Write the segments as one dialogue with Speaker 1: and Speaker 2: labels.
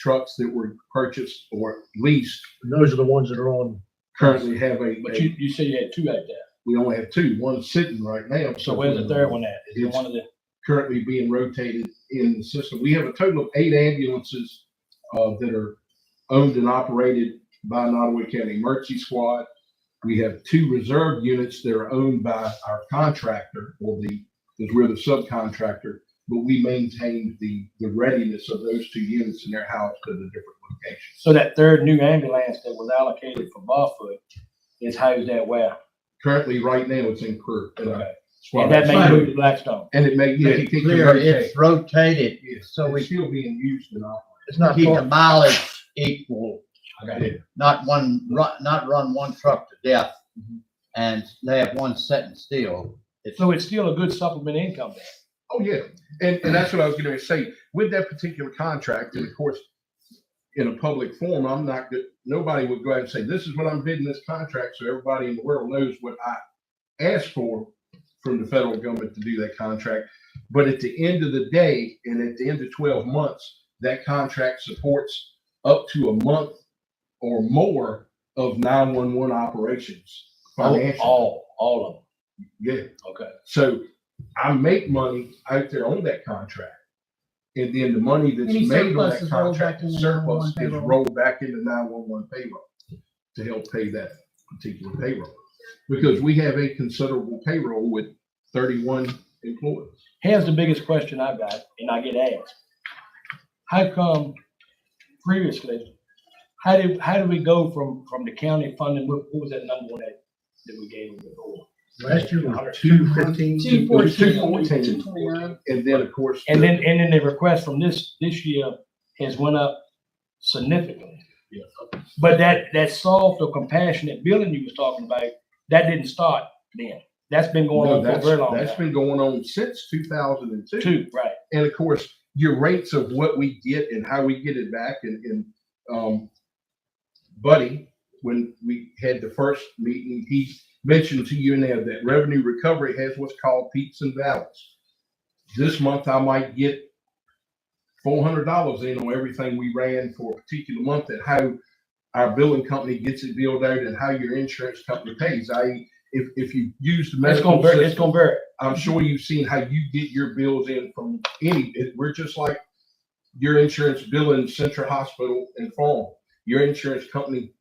Speaker 1: trucks that were purchased or leased
Speaker 2: Those are the ones that are on,
Speaker 1: currently have a,
Speaker 3: But you,
Speaker 1: a-
Speaker 3: you said you had two out there.
Speaker 1: we only have two, one's sitting right now.
Speaker 3: So where's the third one at? Is it
Speaker 1: It's-
Speaker 3: one of the,
Speaker 1: Currently being rotated in the system. We have a total of eight ambulances, uh, that are owned and operated by Nottaway County Emergency Squad. We have two reserve units that are owned by our contractor or the, because we're the subcontractor, but we maintain the, the readiness of those two units in their house to the different locations.
Speaker 3: so that third new ambulance that was allocated for Barfoot is housed at where?
Speaker 1: Currently, right now, it's in Crew. at our
Speaker 3: Okay.
Speaker 1: squad
Speaker 3: And that may
Speaker 1: house.
Speaker 3: move to Blackstone.
Speaker 1: And it may, yeah,
Speaker 2: make
Speaker 1: it
Speaker 2: it
Speaker 1: can
Speaker 2: clear,
Speaker 1: convert
Speaker 2: it's rotated,
Speaker 1: so
Speaker 2: so
Speaker 1: it's
Speaker 2: we-
Speaker 1: still being used and all.
Speaker 2: it's not
Speaker 4: Keep the
Speaker 2: for,
Speaker 4: mileage equal,
Speaker 1: Okay.
Speaker 4: not one, run, not run one truck to death and they have one sitting still. It's,
Speaker 3: So it's still a good supplement income there.
Speaker 1: Oh, yeah. And, and that's what I was going to say. With that particular contract, and of course, in a public forum, I'm not, go- nobody would go out and say, this is what I'm bidding this contract, so everybody in the world knows what I asked for from the federal government to do that contract. But at the end of the day, and at the end of twelve months, that contract supports up to a month or more of nine-one-one operations.
Speaker 3: Oh, All,
Speaker 1: financially.
Speaker 3: all, all of them.
Speaker 1: Yeah.
Speaker 3: Okay.
Speaker 1: So I make money out there on that contract. And then the money that's
Speaker 5: Any
Speaker 1: made on
Speaker 5: surplus
Speaker 1: that
Speaker 5: is rolled
Speaker 1: contract,
Speaker 5: back into
Speaker 1: surplus
Speaker 5: 911
Speaker 1: is
Speaker 5: payroll.
Speaker 1: rolled back into nine-one-one payroll to help pay that particular payroll. Because we have a considerable payroll with thirty-one employees.
Speaker 3: Here's the biggest question I got, and I get asked. How come previously, how did, how did we go from, from the county funding, what, what was that number one that, that we gave them before?
Speaker 2: last year was two fifteen.
Speaker 5: Two
Speaker 1: It was
Speaker 5: fourteen,
Speaker 1: 214,
Speaker 5: two twenty-nine.
Speaker 1: And then, of course.
Speaker 3: And
Speaker 1: the-
Speaker 3: then, and then the request from this, this year has went up significantly.
Speaker 1: Yeah.
Speaker 3: But that, that soft or compassionate building you was talking about, that didn't start then. That's been going
Speaker 1: No,
Speaker 3: on for a
Speaker 1: that's-
Speaker 3: very long
Speaker 1: That's
Speaker 3: time.
Speaker 1: been going on since two thousand and two.
Speaker 3: Two, right.
Speaker 1: and of course, your rates of what we get and how we get it back and, and, um, Buddy, when we had the first meeting, he mentioned to you now that revenue recovery has what's called peaks and valleys. This month I might get four hundred dollars in on everything we ran for a particular month and how our billing company gets it billed out and how your insurance company pays. I, if, if you use the
Speaker 3: It's
Speaker 1: medical
Speaker 3: gonna, vary- it's
Speaker 1: system-
Speaker 3: gonna vary.
Speaker 1: I'm sure you've seen how you get your bills in from any, it- we're just like your insurance bill in Central Hospital and Farm. Your insurance company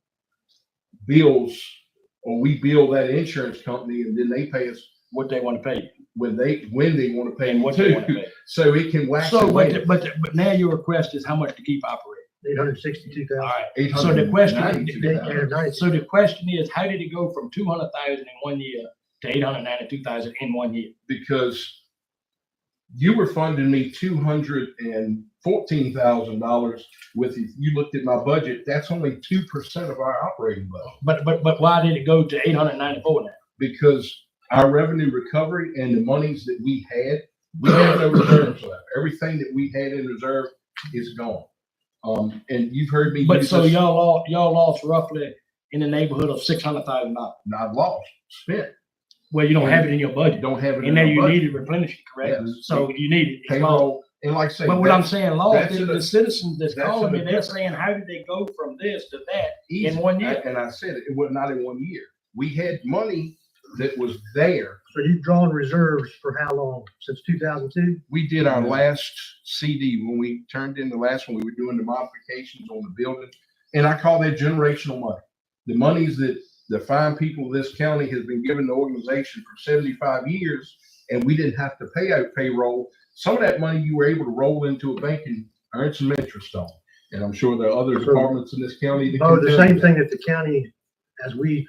Speaker 1: bills, or we bill that insurance company and then they pay us
Speaker 3: what they want to pay
Speaker 1: when they, when they want to pay
Speaker 3: and
Speaker 1: them
Speaker 3: what they
Speaker 1: too.
Speaker 3: want to pay.
Speaker 1: So it can wax
Speaker 3: So,
Speaker 1: and
Speaker 3: but,
Speaker 1: wane.
Speaker 3: the- but, the- but now your request is how much to keep operating.
Speaker 2: Eight hundred sixty-two
Speaker 3: All right.
Speaker 2: thousand.
Speaker 3: So the question-
Speaker 1: $892,000.
Speaker 3: So the question is, how did it go from two hundred thousand in one year to eight hundred ninety-two thousand in one year?
Speaker 1: Because you were funding me two hundred and fourteen thousand dollars with, if you looked at my budget, that's only two percent of our operating budget.
Speaker 3: But, but, but why did it go to eight hundred ninety-four now?
Speaker 1: because our revenue recovery and the monies that we had, we have no reserves left. Everything that we had in reserve is gone. Um, and you've heard me.
Speaker 3: But
Speaker 1: use
Speaker 3: so
Speaker 1: this-
Speaker 3: y'all, all y'all lost roughly in the neighborhood of six hundred thousand dollars.
Speaker 1: Not lost, spent,
Speaker 3: Well, you don't have it in your budget.
Speaker 1: don't have it.
Speaker 3: And then
Speaker 1: our
Speaker 3: you
Speaker 1: budget.
Speaker 3: need to replenish it, correct?
Speaker 1: Yes.
Speaker 3: So you need it. It's lost.
Speaker 1: Payroll, and like I say.
Speaker 3: But what I'm saying, lost,
Speaker 1: that's
Speaker 3: is
Speaker 1: in
Speaker 3: the
Speaker 1: the-
Speaker 3: citizens that's
Speaker 1: that's in
Speaker 3: calling me,
Speaker 1: the
Speaker 3: they're
Speaker 1: difference.
Speaker 3: saying, how did they go from this to that?
Speaker 1: in
Speaker 3: one year.
Speaker 1: And I said it, it was not in one year. We had money that was there.
Speaker 2: So you've drawn reserves for how long? Since two thousand two?
Speaker 1: We did our last CD when we turned in the last one, we were doing the modifications on the building. And I call that generational money. The monies that the fine people of this county has been giving the organization for seventy-five years, and we didn't have to pay out payroll. Some of that money you were able to roll into a bank and earn some interest on. And I'm sure there are other
Speaker 2: Sure.
Speaker 1: departments in this county. that
Speaker 2: Oh,
Speaker 1: can
Speaker 2: the
Speaker 1: do
Speaker 2: same
Speaker 1: that.
Speaker 2: thing that the county, as we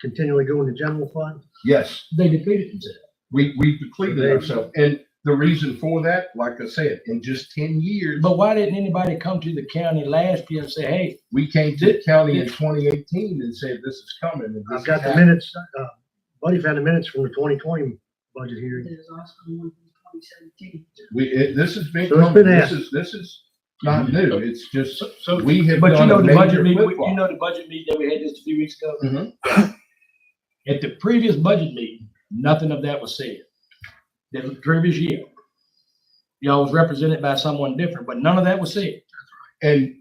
Speaker 2: continually go into general fund?
Speaker 1: Yes.
Speaker 3: They defeated themselves.
Speaker 1: We, we depleted
Speaker 2: They-
Speaker 1: ourselves. And the reason for that, like I said, in just ten years,
Speaker 3: But why didn't anybody come to the county last year and say, hey,
Speaker 1: we came to the county in twenty eighteen and said, this is coming. and this
Speaker 2: I've got
Speaker 1: is
Speaker 2: the
Speaker 1: happening."
Speaker 2: minutes, uh, Buddy found the minutes from the twenty twenty budget hearing.
Speaker 5: There's also one from 2017.
Speaker 1: We, it, this has been,
Speaker 2: So it's
Speaker 1: coming.
Speaker 2: been
Speaker 1: this
Speaker 2: asked. Mm-hmm.
Speaker 1: is, this is not new. It's just,
Speaker 3: so,
Speaker 1: we have
Speaker 3: but you
Speaker 1: done
Speaker 3: know
Speaker 1: a
Speaker 3: the
Speaker 1: major
Speaker 3: budget meeting,
Speaker 1: flip
Speaker 3: you know the budget meeting that we had just a few weeks ago?
Speaker 1: Mhm.
Speaker 3: At the previous budget meeting, nothing of that was said. The previous year. Y'all was represented by someone different, but none of that was said.
Speaker 1: And